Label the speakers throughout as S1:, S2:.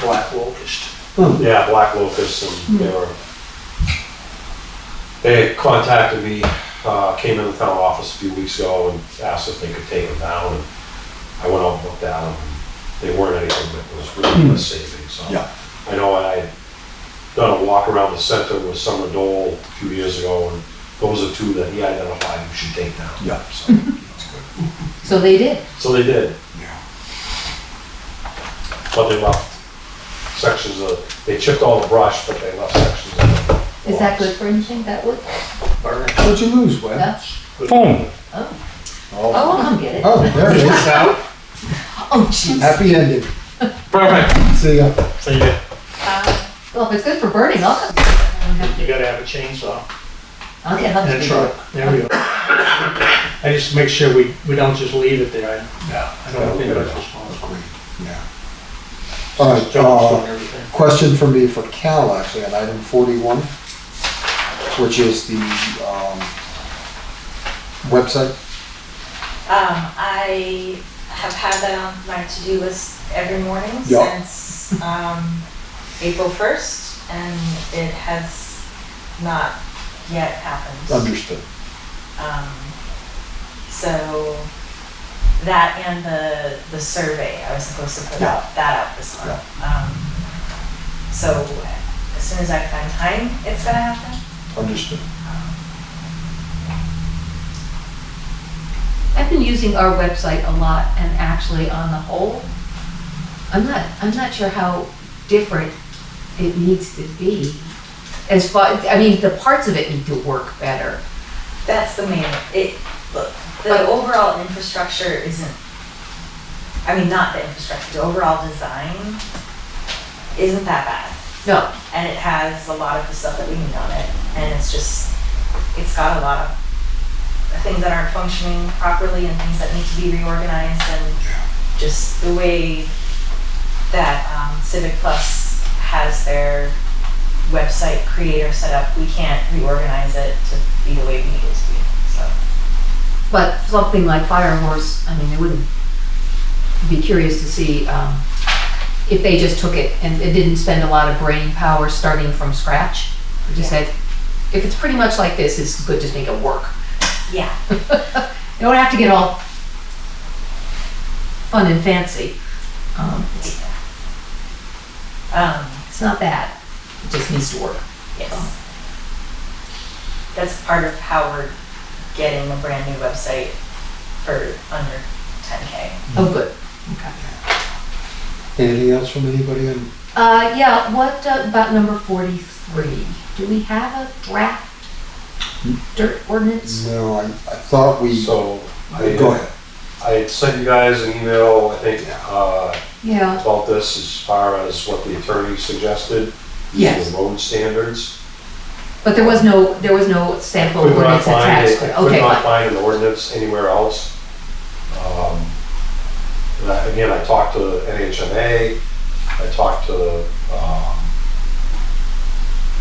S1: black locust.
S2: Yeah, Black Locust, and they were, they contacted me, uh, came in the town office a few weeks ago and asked if they could take them down, and I went out and looked at them, they weren't anything that was really worth saving, so.
S3: Yeah.
S2: I know I had done a walk around the center with Summer Dole a few years ago, and those are two that he identified who should take down.
S3: Yeah.
S2: So, that's good.
S4: So they did.
S2: So they did.
S3: Yeah.
S2: But they left sections of, they chipped all the brush, but they left sections of it.
S4: Is that good for anything, that would?
S1: Burn.
S3: What'd you lose, Webb?
S4: Yeah?
S5: Foam.
S4: Oh, I'll come get it.
S3: Oh, there it is.
S4: Oh, jeez.
S3: Happy ending.
S5: Perfect.
S3: See ya.
S1: So you,
S4: Well, if it's good for burning, I'll come. get
S1: you
S4: it.
S1: gotta have a chainsaw
S4: I don't have to- Okay, I'll
S1: and a
S4: get
S1: truck. There we go. I just make sure we, we don't just leave it there. Yeah. I don't think that's responsible.
S3: Yeah. All right,
S1: John's
S3: uh,
S1: doing everything.
S3: question for me for Cal, actually, on item forty-one, which is the, um, website.
S6: Um, I have had that on my to-do list every morning
S3: Yeah.
S6: since, um, April first, and it has not yet happened.
S3: Understood.
S6: Um, so, that and the, the survey, I was supposed to put
S3: Yeah.
S6: out, that out this month. Um, so, as soon as I find time, it's gonna happen.
S3: Understood.
S4: I've been using our website a lot and actually on the whole, I'm not, I'm not sure how different it needs to be. As far, I mean, the parts of it need to work better.
S6: That's the main, it,
S4: But-
S6: look, the overall infrastructure isn't, I mean, not the infrastructure, the overall design isn't that bad.
S4: No,
S6: And it has a lot of the stuff that we need on it, and it's just, it's got a lot of things that aren't functioning properly and things that need to be reorganized and just the way that um, Civic Plus has their website creator set up, we can't reorganize it to be the way we need it to be, so.
S4: but something like Fire Horse, I mean, I wouldn't be curious to see, um, if they just took it and it didn't spend a lot of brain power starting from scratch. It Just said, if it's pretty much like this, it's good, just make it work.
S6: Yeah,
S4: You don't have to get all fun and fancy. Um, it's,
S6: um,
S4: it's not bad. It just needs to work.
S6: yes. That's part of how we're getting a brand new website for under ten K.
S4: Oh, good. Okay.
S3: Anything else from anybody on
S4: Uh, yeah, what uh, about number 43? Do we have a draft dirt ordinance?
S3: No, I, I thought we, go
S2: So, I,
S3: ahead.
S2: I had sent you guys an email, I think, uh,
S4: Yeah.
S2: about this as far as what the attorney suggested.
S4: Yes.
S2: The road standards.
S4: But there was no, there was no sample
S2: Could not
S4: ordinance
S2: find
S4: attached
S2: it,
S4: to it.
S2: I could
S4: Okay,
S2: not
S4: fine.
S2: find an ordinance anywhere else. Um, And I, again, I talked to NHMA, I talked to, um,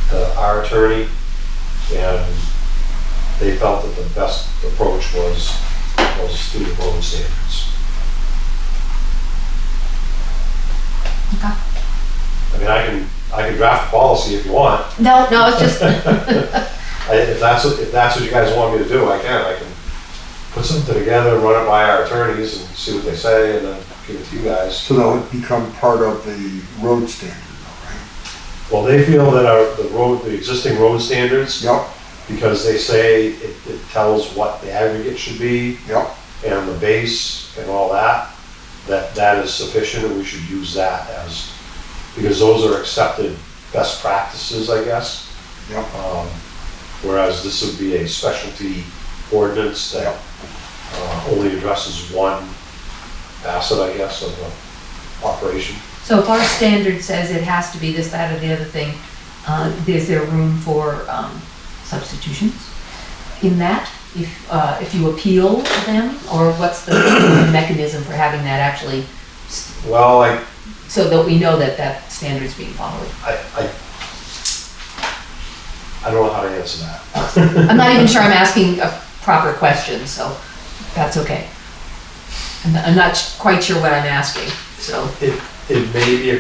S2: the, our attorney, and they felt that the best approach was, was through the road standards.
S4: Okay.
S2: I mean, I can, I can draft a policy if you want,
S4: No, no, it's just,
S2: I- If that's, what- if that's what you guys want me to do, I can, I can put something together, run it by our attorneys and see what they say and then give it to you guys.
S3: So that would become part of the road standard,
S2: Well,
S3: all
S2: they feel that our, the road, the existing road standards,
S3: right?
S2: because they say it, it tells what the aggregate should be
S3: Yep, yep,
S2: and the base and all that, that that is sufficient and we should use that as, because those are accepted best practices, I guess.
S3: yep.
S2: Um, Whereas this would be a specialty ordinance that uh, only addresses one facet, I guess, of the operation.
S4: so if our standard says it has to be this, that, or the other thing, uh, is there room for, um, substitutions in that? If, uh, if you appeal to them, or what's the mechanism for having that actually,
S2: Well, I,
S4: so that we know that that standard's being followed?
S2: I, I, I don't know how to answer that.
S4: I'm not even sure I'm asking a proper question, so that's okay. I'm not- I'm not quite sure what I'm asking, so.
S2: It may be a